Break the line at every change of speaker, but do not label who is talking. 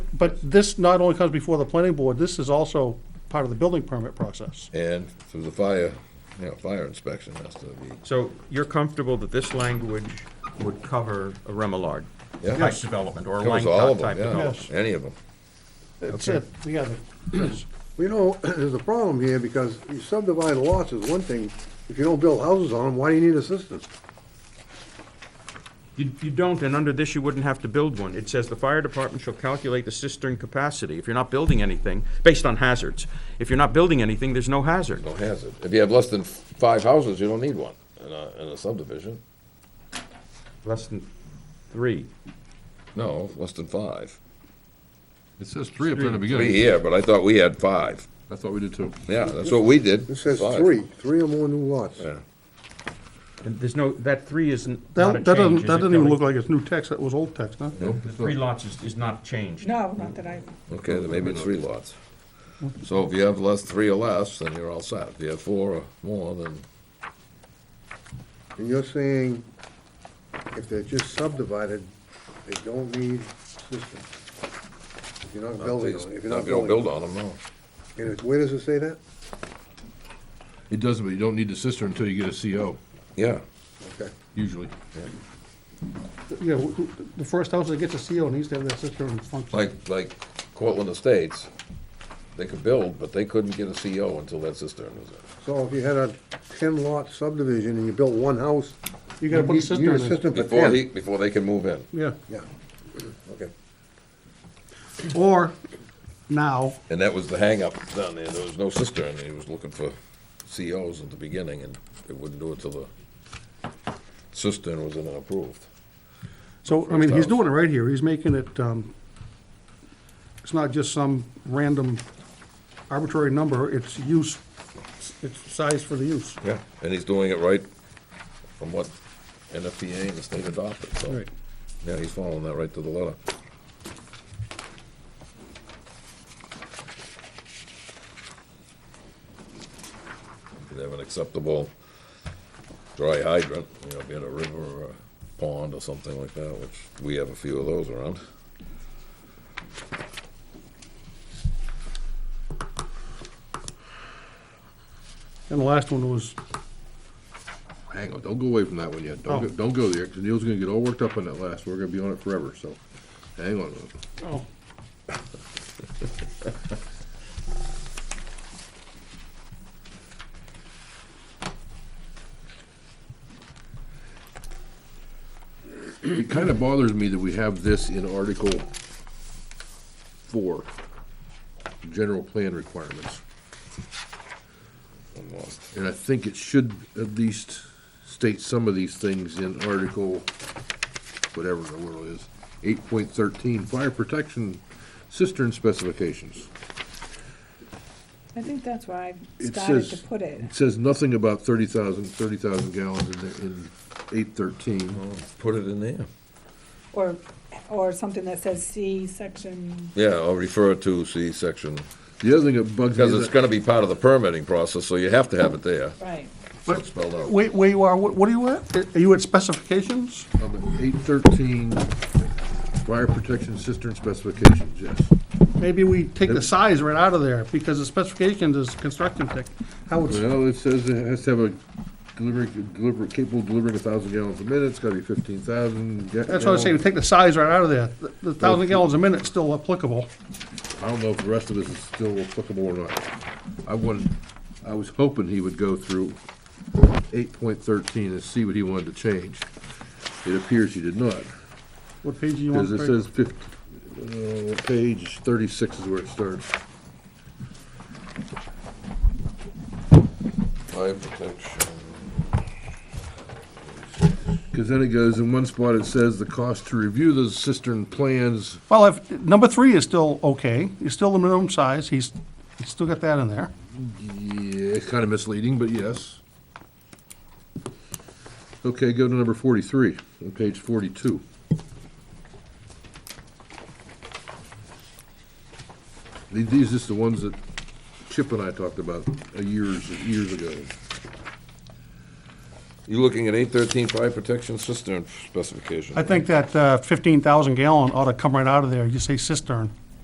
But this not only comes before the planning board, this is also part of the building permit process.
And through the fire, you know, fire inspection has to be,
So you're comfortable that this language would cover a Remillard
Yeah.
type development or a
covers all
Langcott
of
type
them, yeah,
development?
any of them.
It's, it, yeah, it's,
You know, there's a problem here because you subdivide lots is one thing. If you don't build houses on them, why do you need a system?
You, you don't, and under this, you wouldn't have to build one. It says the fire department shall calculate the cistern capacity. If you're not building anything, based on hazards. If you're not building anything, there's no hazard.
No hazard. If you have less than f- five houses, you don't need one in a, in a subdivision.
Less than three.
No, less than five.
It says three up there in the
Three
beginning.
here, but I thought we had five.
I thought we did too.
Yeah, that's what we did.
It says
Five.
three, three or more new lots.
Yeah.
And there's no, that three isn't, not a
that, that doesn't, that
change, is it,
doesn't even
Kelly?
look like it's new text, that was old text, huh?
The three lots is, is not changed.
No, not that I,
Okay, then maybe it's three lots. So if you have less, three or less, then you're all set. If you have four or more, then,
And you're saying if they're just subdivided, they don't need system. If you're not building on it, if
if
you're
you
not
don't
building.
build
on
on them, no.
it. And it- where does it say that?
It doesn't, but you don't need the cistern until you get a CO,
Yeah,
Okay.
usually.
Yeah, wh- wh- the first house that gets a CO needs to have that cistern function.
like, like Cortland Estates, they could build, but they couldn't get a CO until that cistern was in.
So if you had a ten lot subdivision and you built one house.
You gotta put a
You need
cistern
a
in.
system for
Before he,
ten.
before they can move in.
Yeah,
Yeah, okay.
or now,
And that was the hangup down there. There was no cistern. He was looking for COs at the beginning, and they wouldn't do it till the cistern was in and approved.
so, I mean, he's
First house.
doing it right here, he's making it, um, it's not just some random arbitrary number, it's use, it's size for the use.
Yeah. And he's doing it right from what NFPA and the state adopted, so.
Right.
Yeah, he's following that right to the letter. Could have an acceptable dry hydrant, you know, be it a river or a pond or something like that, which we have a few of those around.
And the last one was,
Hang on, don't go away from that one yet. Don't,
Oh.
go- don't go there, because Neil's gonna get all worked up on that last. We're gonna be on it forever, so hang on. a minute.
oh,
It kind of bothers me that we have this in Article Four, General Plan Requirements.
I'm lost.
And I think it should at least state some of these things in Article, whatever the word is, eight point thirteen, fire protection cistern specifications.
I think that's where I
It
started to
says-
put it.
It says nothing about thirty thousand, thirty thousand gallons in, the- in eight thirteen.
Put it in there.
Or, or something that says C, section,
Yeah, I'll refer to C section,
The other thing that bugs me
because
is
it's
that
gonna be part of the permitting process, so you have to have it there,
right.
so it's spelled out.
wait, where you are, what what are you at? Are you at specifications?
eight thirteen, fire protection cistern specifications, yes.
Maybe we take the size right out of there, because the specifications is construction tech, how it's,
Well, it says it has to have a delivering, deliver, capable of delivering a thousand gallons a minute, it's gotta be fifteen thousand.
that's what I'm saying, take the size right out of there. The- The thousand gallons a minute's still applicable.
I don't know if the rest of this is still applicable or not. I wanted, I was hoping he would go through eight point thirteen and see what he wanted to change. It appears he did not,
What page do you want?
because it says fifty, uh, page thirty-six is where it starts.
Fire protection.
Because then it goes, in one spot it says the cost to review the cistern plans,
Well, if, number three is still okay, it's still the minimum size, he's, he's still got that in there.
yeah, it's kind of misleading, but yes. Okay, go to number forty-three, on page forty-two. The- These is the ones that Chip and I talked about uh, years, years ago.
You're looking at eight thirteen fire protection cistern specification.
uh, I think that fifteen thousand gallon ought to come right out of there, you say cistern.